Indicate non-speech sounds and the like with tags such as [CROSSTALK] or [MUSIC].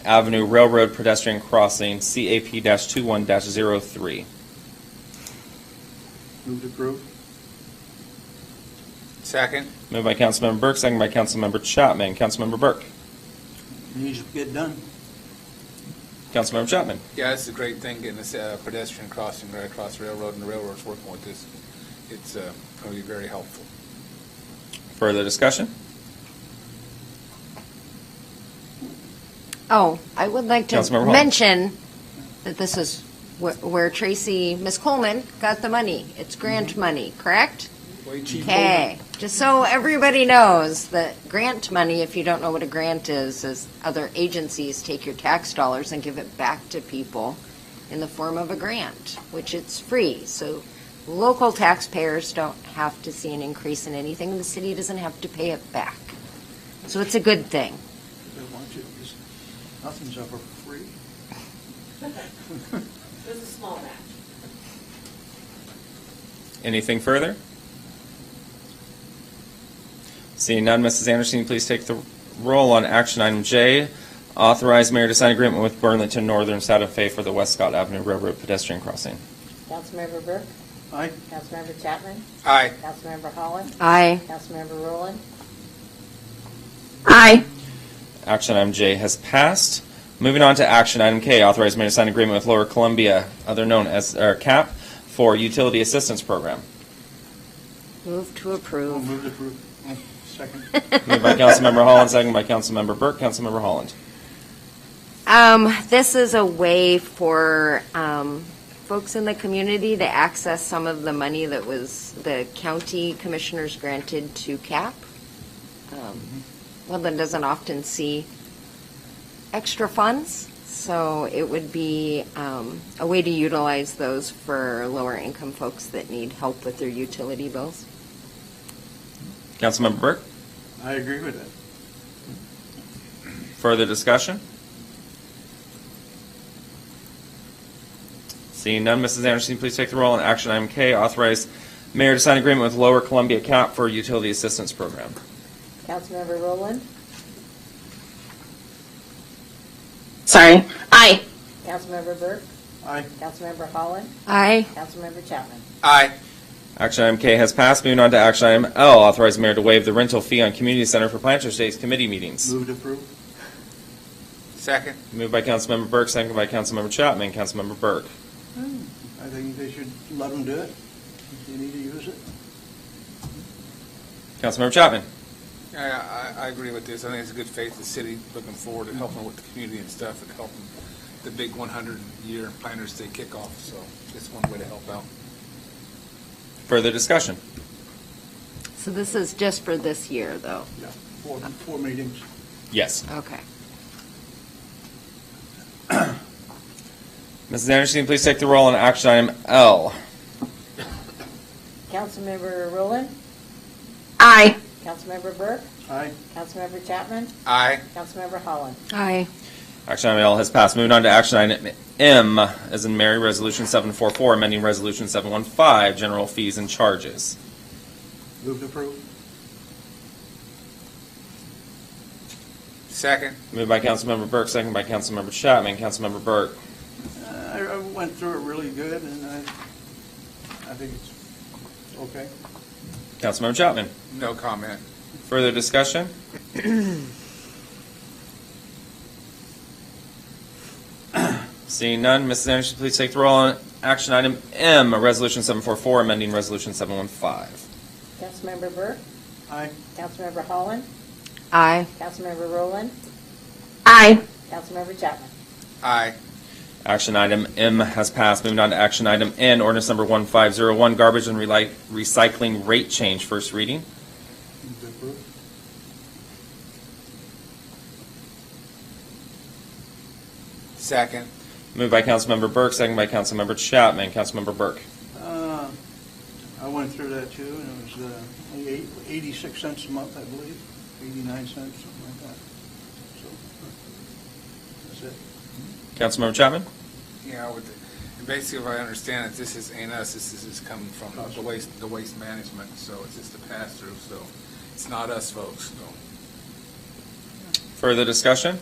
Avenue Railroad Pedestrian Crossing, CAP-21-03. Move to approve. Second. Moved by Councilmember Burke, second by Councilmember Chapman. Councilmember Burke. Needs to get done. Councilmember Chapman. Yeah, it's a great thing getting this uh, pedestrian crossing right across the railroad and the railroad's working with this. It's uh, going to be very helpful. Further discussion? Oh, I would like Councilmember to Hall. mention that this is wh- where Tracy, Ms. Coleman, got the money. It's grant money, correct? Okay, just so everybody knows that grant money, if you don't know what a grant is, is other agencies take your tax dollars and give it back to people in the form of a grant, which it's free. So local taxpayers don't have to see an increase in anything, and the city doesn't have to pay it back. So it's a good thing. They want you, just, nothing's ever free. There's a small match. Anything further? Seeing none, Mrs. Anderson, please take the roll on action item J, authorize mayor to sign agreement with Burlington Northern Santa Fe for the Westcott Avenue Railroad Pedestrian Crossing. Councilmember Burke, Aye. Councilmember Chapman, Aye. Councilmember Holland, Aye. Councilmember Rowland, Aye. Action item J has passed. Moving on to action item K, authorize mayor to sign agreement with Lower Columbia, other known as, or CAP, for utility assistance program. Move to Oh, approve. Move to approve. Second. [LAUGHS] Moved by Councilmember Holland, second by Councilmember Burke. Councilmember Holland. Um, this is a way for, um, folks in the community to access some of the money that was, the county commissioners granted to CAP. Um, Woodland doesn't often see extra funds, so it would be, um, a way to utilize those for lower income folks that need help with their utility bills. Councilmember Burke, I agree with that. further discussion? Seeing none, Mrs. Anderson, please take the roll on action item K, authorize mayor to sign agreement with Lower Columbia CAP for utility assistance program. Councilmember Rowland, Sorry. Aye. Councilmember Burke, Aye. Councilmember Holland, Aye. Councilmember Chapman. Aye. Action item K has passed. Moving on to action item L, authorize mayor to waive the rental fee on community center for Planters Days committee meetings. Move to approve. Second. Moved by Councilmember Burke, seconded by Councilmember Chapman. Councilmember Burke. I think they should let them do it. If they need to use it. Councilmember Chapman. Yeah, I, I agree with this. I think it's a good faith, the city looking forward to helping with the community and stuff and helping the big 100-year Planters Day kickoff, so it's one way to help out. Further discussion? So this is just for this year, though? Four, four meetings. Yes. Okay. Mrs. Anderson, please take the roll on action item L. Councilmember Rowland, Aye. Councilmember Burke, Aye. Councilmember Chapman, Aye. Councilmember Holland, Aye. Action item L has passed. Moving on to action item M, as in Mary, Resolution 744, amending Resolution 715, general fees and charges. Move to approve. Second. Moved by Councilmember Burke, seconded by Councilmember Chapman. Councilmember Burke. Uh, I, I went through it really good and I, I think it's okay. Councilmember Chapman. No comment. Further discussion? [CLEARS THROAT] Seeing none, Mrs. Anderson, please take the roll on action item M, Resolution 744, amending Resolution 715. Councilmember Burke, Aye. Councilmember Holland, Aye. Councilmember Rowland, Aye. Councilmember Chapman. Aye. Action item M has passed. Moving on to action item N, ordinance number 1501, garbage and reli- recycling rate change, first reading. Move to approve. Second. Moved by Councilmember Burke, second by Councilmember Chapman. Councilmember Burke. Uh, I went through that too and it was, uh, eight- eighty-six cents a month, I believe, eighty-nine cents, something like that. So, that's it. Councilmember Chapman? Yeah, with, the- and basically, if I understand it, this is, ain't us, this is, is coming from the waste, the waste management, so it's just a pass-through, so it's not us folks, so. Further discussion?